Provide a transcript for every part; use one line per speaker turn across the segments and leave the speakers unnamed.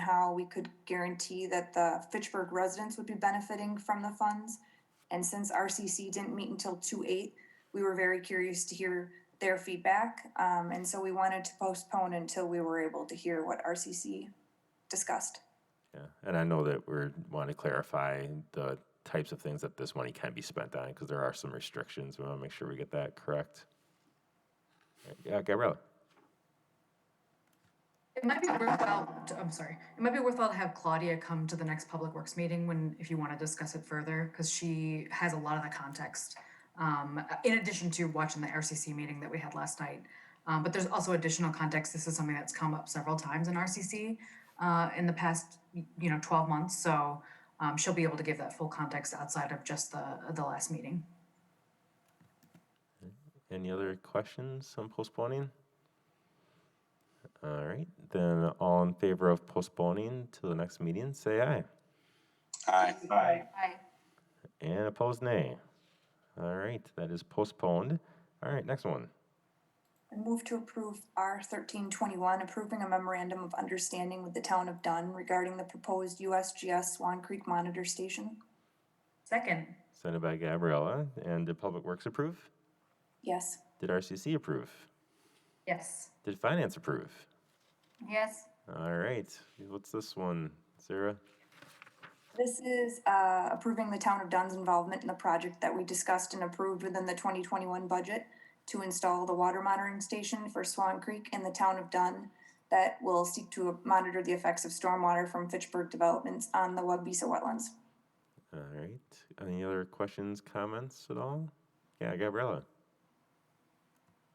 how we could guarantee that the Fitchburg residents would be benefiting from the funds. And since RCC didn't meet until two eight, we were very curious to hear their feedback. Um, and so we wanted to postpone until we were able to hear what RCC discussed.
Yeah, and I know that we're want to clarify the types of things that this money can be spent on because there are some restrictions. We want to make sure we get that correct. Right, Yeah, Gabriella.
It might be worthwhile, to- I'm sorry, it might be worthwhile to have Claudia come to the next Public Works meeting when, if you want to discuss it further, because she has a lot of the context. Um, in addition to watching the RCC meeting that we had last night. Um, but there's also additional context. This is something that's come up several times in RCC uh, in the past, you know, 12 months. So um, she'll be able to give that full context outside of just the, the last meeting.
Any other questions on postponing? All right, then all in favor of postponing to the next meeting, say aye.
Aye. Aye.
And opposed, nay. All right, that is postponed. All right, next one.
I move to approve R thirteen twenty-one, approving a memorandum of understanding with the town of Dunn regarding the proposed USGS Swan Creek Monitor Station.
Second,
Sent by Gabriella. And did Public Works approve?
Yes.
Did RCC approve?
yes.
Did Finance approve?
Yes.
All right, what's this one, Sarah?
This is uh, approving the town of Dunn's involvement in the project that we discussed and approved within the twenty twenty-one budget to install the water monitoring station for Swan Creek in the town of Dunn that will seek to monitor the effects of stormwater from Fitchburg developments on the Wabisa wetlands.
All right, any other questions, comments at all? Yeah, Gabriella.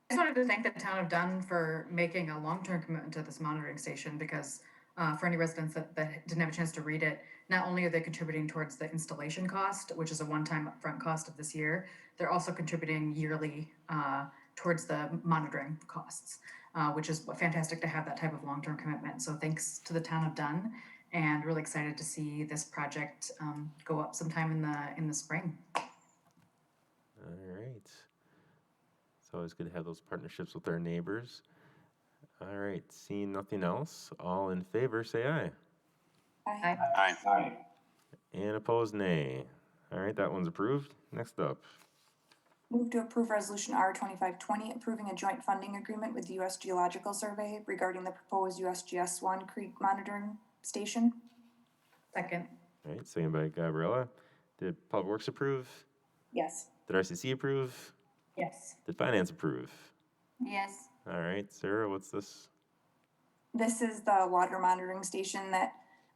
I just wanted to thank the town of Dunn for making a long-term commitment to this monitoring station because uh, for any residents that, that didn't have a chance to read it, not only are they contributing towards the installation cost, which is a one-time upfront cost of this year, they're also contributing yearly uh, towards the monitoring costs, uh, which is fantastic to have that type of long-term commitment. So thanks to the town of Dunn, and really excited to see this project um, go up sometime in the in the spring.
All right. It's always good to have those partnerships with our neighbors. All right, seeing nothing else, all in favor, say aye.
Aye.
Aye. Aye.
And opposed, nay. All right, that one's approved. Next up,
Move to approve resolution R twenty-five twenty, approving a joint funding agreement with the US Geological Survey regarding the proposed USGS Swan Creek monitoring station.
Second,
all right, second by Gabriella. Did Public Works approve?
Yes.
Did RCC approve?
yes.
Did Finance approve?
Yes.
All right, Sarah, what's this?
This is the water monitoring station that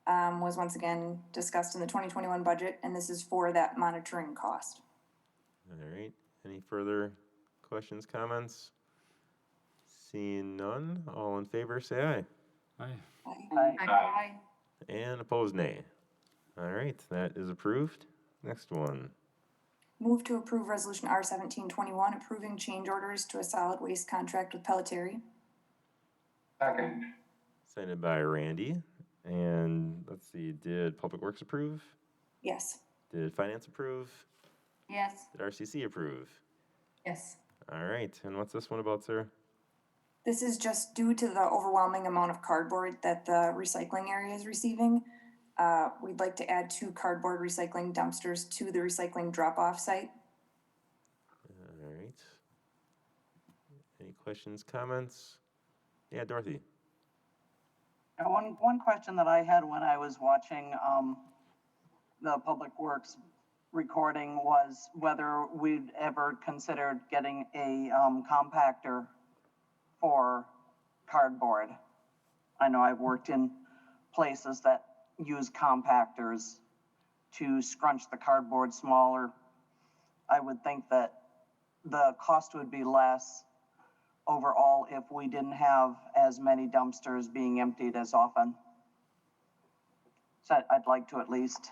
um, was once again discussed in the twenty twenty-one budget, and this is for that monitoring cost.
All right, any further questions, comments? Seeing none, all in favor, say aye.
Aye.
Aye.
And opposed, nay. All right, that is approved. Next one.
Move to approve resolution R seventeen twenty-one, approving change orders to a solid waste contract with Pelletieri.
Second.
Signed by Randy. And let's see, did Public Works approve?
Yes.
Did Finance approve?
Yes.
Did RCC approve?
Yes.
All right, and what's this one about, sir?
This is just due to the overwhelming amount of cardboard that the recycling area is receiving. Uh, we'd like to add two cardboard recycling dumpsters to the recycling drop-off site.
All right. Any questions, comments? Yeah, Dorothy.
Now, One, one question that I had when I was watching um, the Public Works recording was whether we'd ever considered getting a um, compactor for cardboard. I know I've worked in places that use compactors to scrunch the cardboard smaller. I would think that the cost would be less overall if we didn't have as many dumpsters being emptied as often. So I- I'd like to at least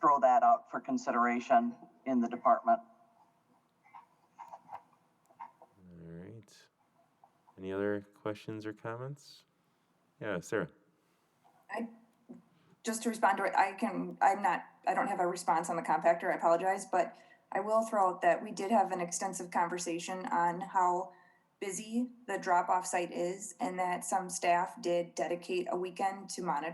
throw that out for consideration in the department.
All right. Any other questions or comments? Yeah, Sarah.
just to respond to it, I can, I'm not, I don't have a response on the compactor, I apologize, but I will throw out that we did have an extensive conversation on how busy the drop-off site is and that some staff did dedicate a weekend to monitoring.